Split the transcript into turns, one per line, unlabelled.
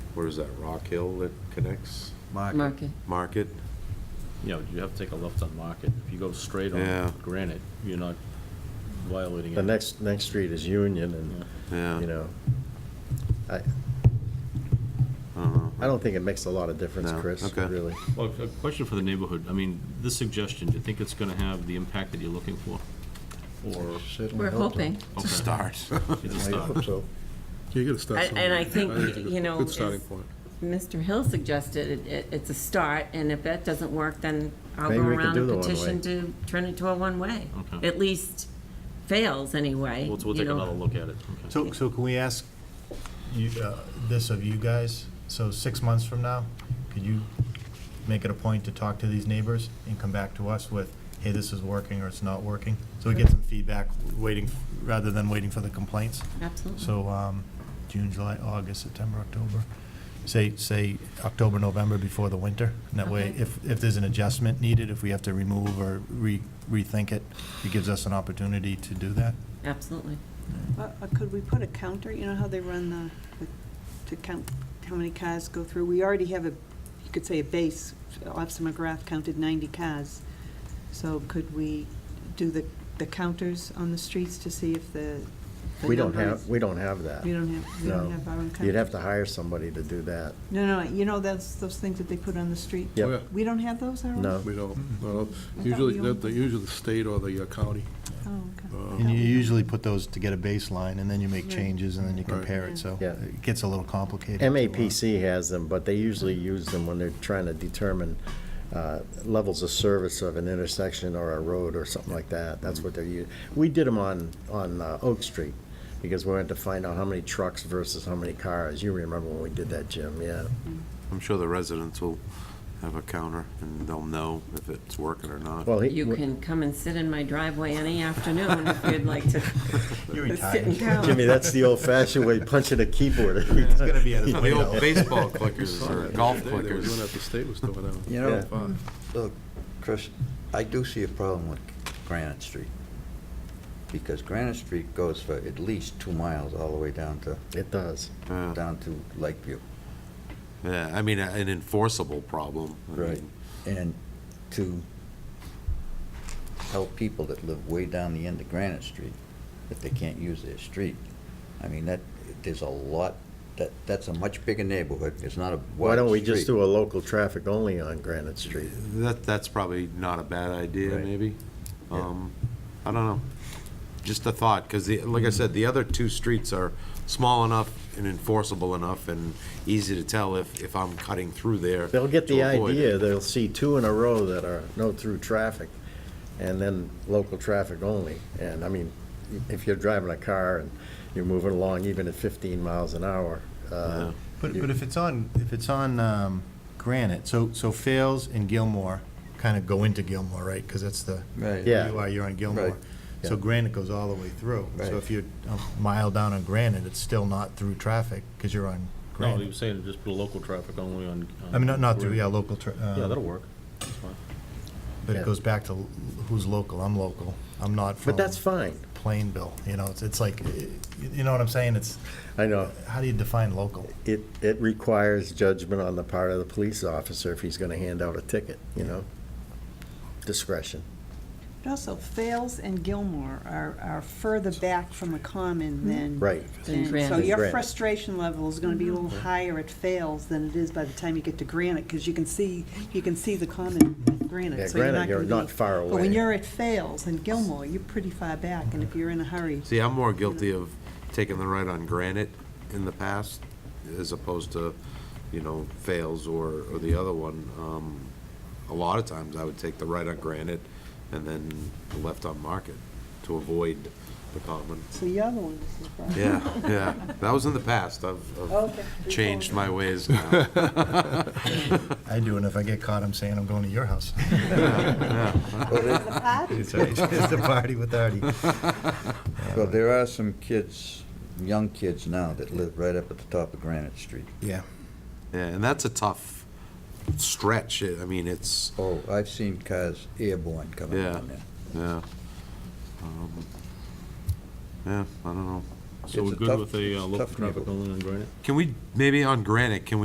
what is that, Rock Hill that connects
Market.
Market.
Market?
You know, you have to take a left on Market. If you go straight
Yeah.
on Granite, you're not violating it.
The next, next street is Union
Yeah.
and, you know, I,
Uh-huh.
I don't think it makes a lot of difference,
No,
Chris,
okay.
really.
Well, a question for the neighborhood. I mean, this suggestion, do you think it's gonna have the impact that you're looking for? Or?
Certainly
We're
hope so.
hoping.
It's a
Okay.
start.
It's a
I
start.
hope so.
You gotta start
And- and I
somewhere.
think,
it's a
you know,
Good starting
it's-
point.
Mr. Hill suggested it- it, it's a start, and if that doesn't work, then I'll go
Maybe we can
around
do
and
the one-way.
petition to turn it to a one-way.
Okay.
At least fails anyway.
We'll, we'll
you
take
know.
another look at it. Okay.
So, so can we ask you, uh, this of you guys? So six months from now, could you make it a point to talk to these neighbors and come back to us with, hey, this is working or it's not working? So we get some feedback waiting, rather than waiting for the complaints.
Absolutely.
So, um, June, July, August, September, October, say, say October, November before the winter. And that way,
Okay.
if, if there's an adjustment needed, if we have to remove or re, rethink it, it gives us an opportunity to do that.
Absolutely.
Uh, uh, Could we put a counter, you know how they run the, the- to count how many cars go through? We already have a, you could say a base, Officer McGrath counted 90 cars. So could we do the, the counters on the streets to see if the? the
We don't
number
have,
is-
we don't have that.
We don't have, we
No.
don't have our own counters?
You'd have to hire somebody to do that.
No, no, you know, that's those things that they put on the street?
Yep.
Oh,
We don't have those, our own?
No.
We don't, no,
I thought
usually,
we
they're
all-
they're usually the state or the uh, county.
Oh, okay.
Uh,
And you usually put those to get a baseline, and then you make
Right.
changes, and then you
Right.
compare it, so
Yeah.
it gets a little complicated.
MAPC has them, but they usually use them when they're trying to determine uh, levels of service of an intersection or a road or something like that. That's what they're u, we did them on, on uh, Oak Street, because we wanted to find out how many trucks versus how many cars. You remember when we did that, Jim, yeah.
I'm sure the residents will have a counter and they'll know if it's working or not.
Well, he-
You can come and sit in my driveway any afternoon if you'd like to
You're
sit and
retired.
count.
Jimmy, that's the old-fashioned way, punching a keyboard every
It's
time.
gonna be at his
The old
window.
baseball clickers or golf
They were doing that,
clickers.
the state was doing that.
You know,
Fine.
look, Chris, I do see a problem with Granite Street, because Granite Street goes for at least two miles all the way down to,
It does.
Yeah.
down to Lakeview.
Yeah, I mean, a- an enforceable problem. I mean,
And to tell people that live way down the end of Granite Street that they can't use their street, I mean, that, there's a lot, that, that's a much bigger neighborhood, it's not a wide street.
Why don't we just do a local traffic only on Granite Street?
That, that's probably not a bad idea,
Right.
maybe.
Yeah.
Um, I don't know. Just a thought, because the, like I said, the other two streets are small enough and enforceable enough and easy to tell if, if I'm cutting through there.
They'll get the
to avoid it.
idea, they'll see two in a row that are no through traffic, and then local traffic only. And I mean, if you're driving a car and you're moving along even at 15 miles an hour, uh,
But, but if it's on, if it's on um, Granite, so, so Fails and Gilmore kind of go into Gilmore, right? Because that's the,
Right.
Yeah.
you are, you're on Gilmore.
Right.
So
Yeah.
Granite goes all the way through.
Right.
So if you're a mile down on Granite, it's still not through traffic, because you're on
No, he
Granite.
was saying just put a local traffic only on.
I mean, not, not through, yeah,
Yeah,
local, tra- uh,
that'll work. That's fine.
but
Yeah.
it goes back to l- who's local. I'm local. I'm not from.
but that's fine.
Plainville, you know, it's, it's like, eh, you know what I'm saying? It's,
I know,
how do you define local?
it, it requires judgment on the part of the police officer if he's going to hand out a ticket, you know? Discretion.
But also, Fales and Gilmore are, are further back from the common than.
Right.
Than
than- So
Granite.
your
Granite. Mm-hmm.
frustration level is gonna be a little higher at Fales than it is by the time you get to Granite, because you can see, you can see the common with
Yeah,
Granite. so you're
Granite, you're
gonna
not
be-
far
But
away.
when you're at Fales and Gilmore, you're pretty far back, and if you're in a hurry,
See, I'm more guilty of taking the right on Granite in the past, as opposed to, you know, Fails or, or the other one. Um, A lot of times, I would take the right on Granite and then the left on Market to avoid the common.
so you're the one that's the problem.
Yeah, yeah, that was in the past, I've, I've
Okay.
changed my ways now.
I do, and if I get caught, I'm saying I'm going to your house.
There's a party.
It's a party with Artie.
Well, there are some kids, young kids now that live right up at the top of Granite Street.
Yeah.
Yeah, and that's a tough stretch, I mean, it's,
Oh, I've seen cars airborne coming
Yeah.
down there.
yeah. Um, Yeah, I don't know.
So we're
It's a
good
tough-
with a
it's
uh,
a
local
tough
traffic
neighborhood.
only on Granite?
Can we, maybe on Granite, can we?